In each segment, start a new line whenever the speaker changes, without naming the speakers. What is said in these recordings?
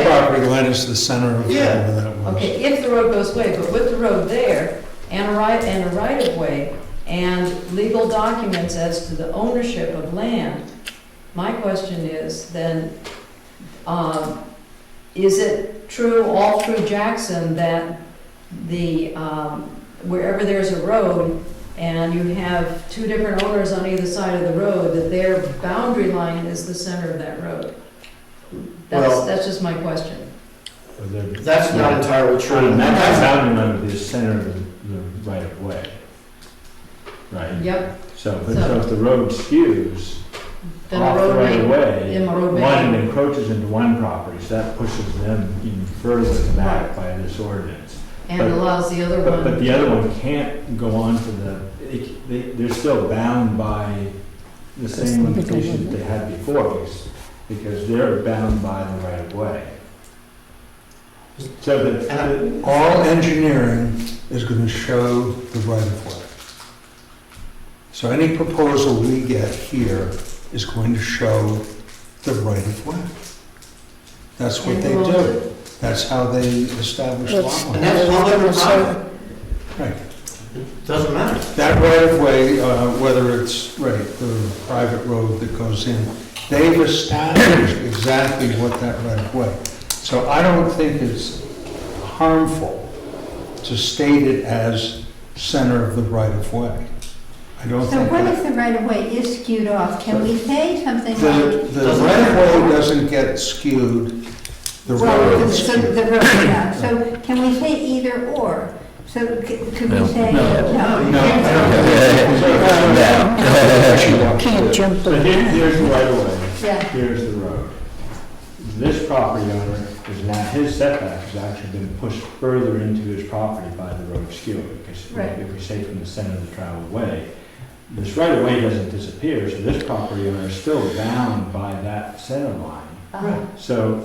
property line is the center of
Yeah.
whatever that was.
Okay, if the road goes away, but with the road there, and a right, and a right-of-way, and legal documents as to the ownership of land, my question is then, um, is it true all through Jackson that the, um, wherever there's a road and you have two different owners on either side of the road, that their boundary line is the center of that road? That's,
Well-
that's just my question.
That's not entirely true.
Trying to match the
That's-
boundary line with the center of the- the right of way. Right?
Yep,
So, but
So-
so if the road skews
Then a
off the
road
right of
may,
way,
in a road
one
may,
encroaches into one property, so that pushes them even further back by this ordinance.
and allows the other
But, but
one,
the other one can't go on to the, it- they, they're still bound by the same limitations that they had before, because, because they're bound by the right of way. So that,
And
All engineering is going to show the right of way. So any proposal we get here is going to show the right of way. That's what
And
they
the road.
do. That's how they establish
That's-
lot
And
lines.
that's public or private,
Right.
doesn't matter.
That right of way, uh, whether it's, right, the private road that goes in, they've established exactly what that right of way. So I don't think it's harmful to state it as center of the right of way. I don't
So
think
what
that.
if the right of way is skewed off? Can we say something
The,
like?
the right of way doesn't get skewed, the
Well,
road
the-
is
so
skewed.
the road, yeah, so can we say either or? So c- could we
No.
say?
No.
No.
No, I don't think
Can't jump
so here- here's the right of way.
Yeah.
here's the road. This property owner is now, his setback has actually been pushed further into his property by the road skewer, because
Right.
if we say from the center of the traveled way, this right of way doesn't disappear, so this property owner is still bound by that center line.
uh,
Uh-huh.
So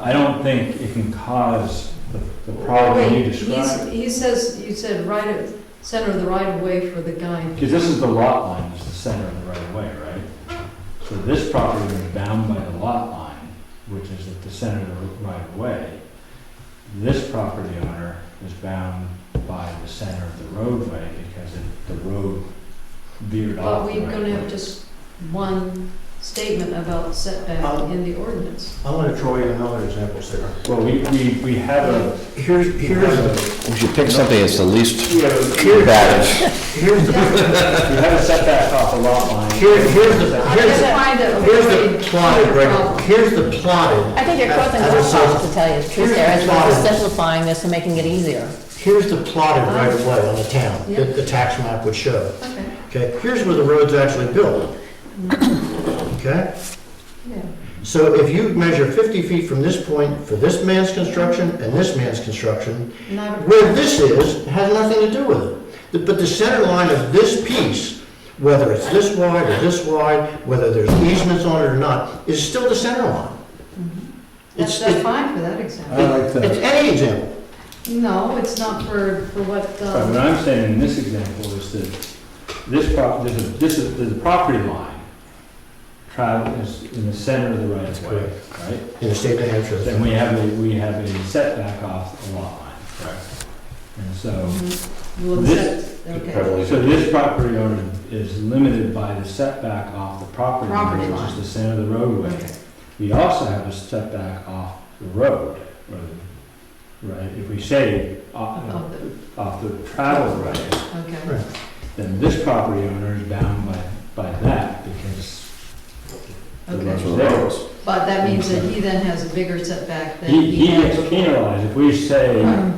I don't think it can cause the the problem you
Wait,
described.
he's- he says, you said right, of- center of the right of way for the guy.
Because this is the lot line, is the center of the right of way, right? So this property is bound by the lot line, which is at the center of the right of way. This property owner is bound by the center of the roadway because it- the road veered
But
off the
we're
right of
gonna have
way.
just one statement about setback
Oh.
Um,
in the ordinance.
I want to throw you another example, Sarah.
Well, we, we, we have a,
Here's,
we have
here's,
a,
We should pick something that's the least
we have a-
bad.
here's,
we have a setback off the lot line.
Here- here's the-
I
here's
just
the-
find that a
here's
very
the plotted,
clear
right,
problem.
here's the plotted,
I think you're crossing
As- as a
roadblocks,
sub-
to tell you the
here's
truth there, as
the
well as
problem.
simplifying this and making it easier.
here's the plotted right of way on the town,
Yeah.
that the tax map would show.
Okay,
Okay, here's where the road's actually built. Okay?
yeah.
So if you measure 50 feet from this point for this man's construction and this man's construction,
Not a-
where this is has nothing to do with it. The- But the center line of this piece, whether it's this wide or this wide, whether there's easements on it or not, is still the center line.
That's,
It's,
Mm-hmm. that's
it-
fine for that example.
I like
it's
that.
any example.
No, it's not for, for what,
But
um,
what I'm saying in this example is that this prop, there's a, this is, there's a property line travel is in the center of the right of way, right?
In the state of New Hampshire.
Then we have a, we have a setback off the lot line, correct? And so,
will
um, this-
accept, okay.
so this property owner is limited by the setback off the property
Property
line, which
line.
is the center of the roadway.
Okay.
We also have a setback off the road, or the- right? If we say off,
Of the-
off the travel right,
Okay.
then this property owner is bound by, by that because the
Okay.
road's there.
But that means that he then has a bigger setback than
He,
he
he
had
gets
before.
penalized. If we say
Right.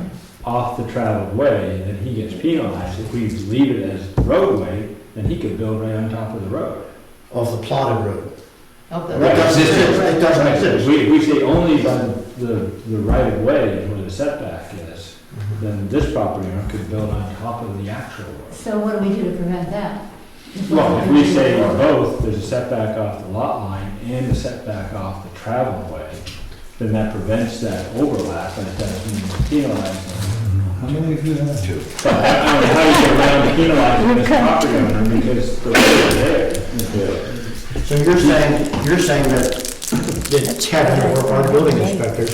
off the traveled way, then he gets penalized. If we leave it as roadway, then he could build right on top of the road.
Of the plotted road.
Of the-
It
Right.
doesn't exist, it doesn't
If
exist.
we, if we say only by the, the right of way is where the setback is,
Mm-hmm.
then this property owner could build on top of the actual road.
So what do we do to prevent that?
Well, if we say both, there's a setback off the lot line and a setback off the travel way, then that prevents that overlap, but it doesn't penalize them.
How many of you have two?
But I don't know how you get around penalizing this property owner because the road is there.
So you're saying, you're saying that the tech or our building inspector